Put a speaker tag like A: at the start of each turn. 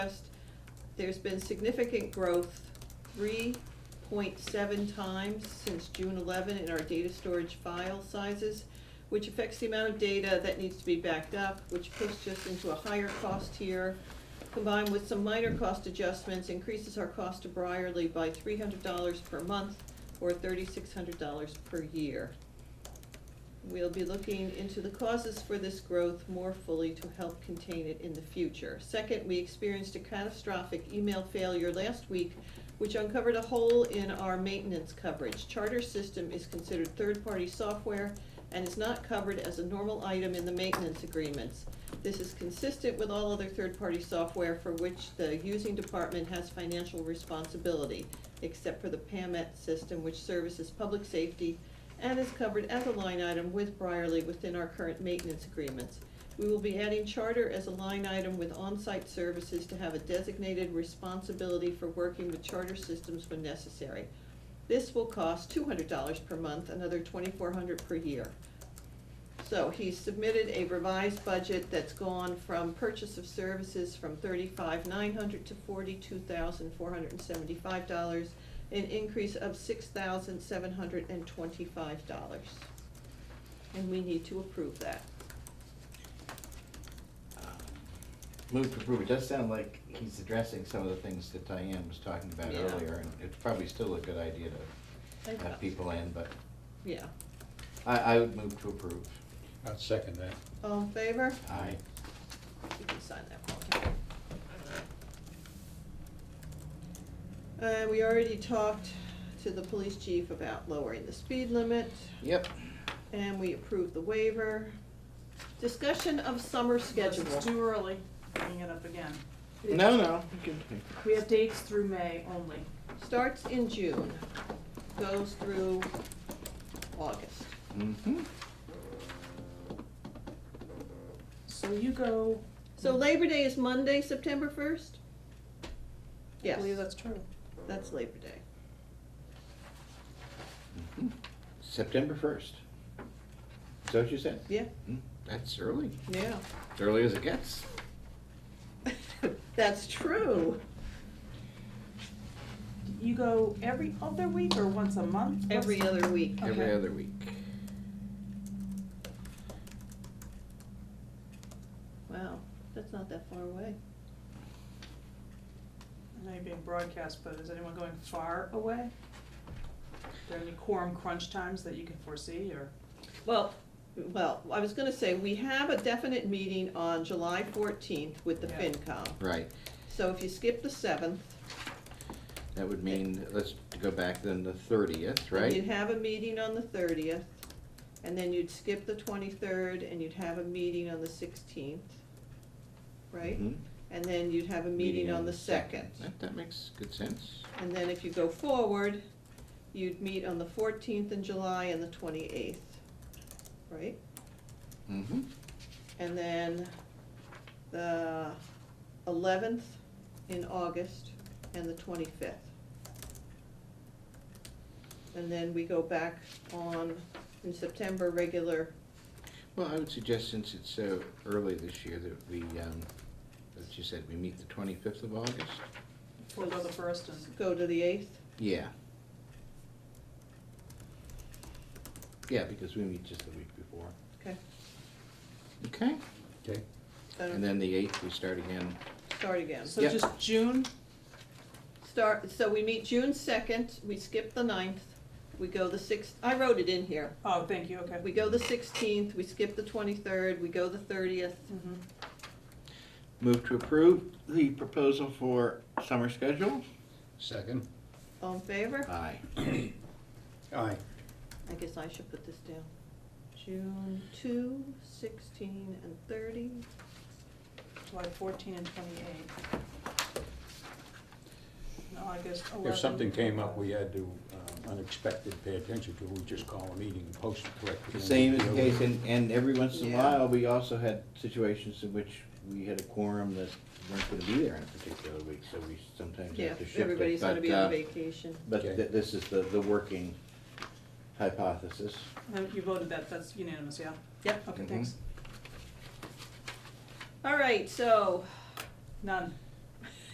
A: Trust, there's been significant growth, three point seven times since June eleven in our data storage file sizes, which affects the amount of data that needs to be backed up, which pushed us into a higher cost tier. Combined with some minor cost adjustments, increases our cost to Briarly by three hundred dollars per month or thirty-six hundred dollars per year. We'll be looking into the causes for this growth more fully to help contain it in the future. Second, we experienced a catastrophic email failure last week, which uncovered a hole in our maintenance coverage. Charter system is considered third-party software and is not covered as a normal item in the maintenance agreements. This is consistent with all other third-party software for which the using department has financial responsibility, except for the PAMET E system, which services public safety and is covered as a line item with Briarly within our current maintenance agreements. We will be adding charter as a line item with on-site services to have a designated responsibility for working with charter systems when necessary. This will cost two hundred dollars per month, another twenty-four hundred dollars per year. So he submitted a revised budget that's gone from purchase of services from thirty-five nine hundred to forty-two thousand four hundred and seventy-five dollars, an increase of six thousand seven hundred and twenty-five dollars. And we need to approve that.
B: Move to approve, it does sound like he's addressing some of the things that Diane was talking about
A: Yeah.
B: earlier, and it's probably still a good idea to have people in, but
A: Yeah.
B: I, I would move to approve.
C: I'll second that.
A: All in favor?
B: Aye.
A: You can sign that one. Uh, we already talked to the police chief about lowering the speed limit,
B: Yep.
A: and we approved the waiver. Discussion of summer schedule.
D: It's too early, bringing it up again.
B: No, no.
D: We have dates through May only.
A: Starts in June, goes through August.
B: Mm-hmm.
D: So you go.
A: So Labor Day is Monday, September first?
D: I
A: Yes,
D: believe that's true.
A: that's Labor Day.
B: Mm-hmm. September first. Is that what you said?
A: Yeah,
B: Mm, That's early,
A: yeah.
B: as early as it gets.
A: That's true.
D: You go every other week or once a month? What's-
A: Every other week.
B: Every
D: Okay.
B: other week.
A: Wow, that's not that far away.
D: I know you're being broadcast, but is anyone going far away? Are there any quorum crunch times that you can foresee or?
A: Well, well, I was gonna say, we have a definite meeting on July fourteenth with the
D: Yeah.
A: FinCom.
B: Right,
A: So if you skip the seventh,
B: that would mean, let's go back then the thirtieth,
A: and you'd
B: right?
A: have a meeting on the thirtieth, and then you'd skip the twenty-third, and you'd have a meeting on the sixteenth, right?
B: Mhm.
A: And then you'd have a Mm-hmm. meeting on the second.
B: That, that makes good sense.
A: And then if you go forward, you'd meet on the fourteenth in July and the twenty-eighth, right?
B: Mm-hmm.
A: And then the eleventh in August and the twenty-fifth. And then we go back on, in September, regular,
B: Well, I would suggest, since it's so early this year, that we, um, as you said, we meet the twenty-fifth of August?
D: We'll go the first and
A: go to the eighth.
B: Yeah. Yeah, because we meet just the week before.
A: Okay.
B: Okay,
C: Okay.
B: and then the eighth, we start again.
A: Start again.
D: So
B: Yep.
D: just June,
A: Start, so we meet June second, we skip the 9th. we go the sixth, I wrote it in here.
D: oh, thank you, okay.
A: We go the sixteenth, we skip the twenty-third, we go the thirtieth,
D: Mhm.
B: Move to approve the proposal for summer schedule?
C: Second?
A: all in favor?
B: Aye.
C: Aye.
A: I guess I should put this down. June two, sixteen, and thirty.
D: July fourteen and twenty-eight. And August eleven.
C: If something came up we had to um, unexpected pay attention to, we just call a meeting and post it correctly.
B: Same is the case, and, and every once in a
A: Yeah.
B: while, we also had situations in which we had a quorum that weren't gonna be there in a particular week, so we sometimes
A: Yeah,
B: have to shift it.
A: everybody's gonna
B: but,
A: be on
B: uh,
A: vacation.
B: But
C: Okay.
B: th- this is the, the working hypothesis.
D: No, You voted that, that's unanimous, yeah?
A: Yep.
D: Okay,
B: Mhm.
D: thanks.
A: All right, so
D: None.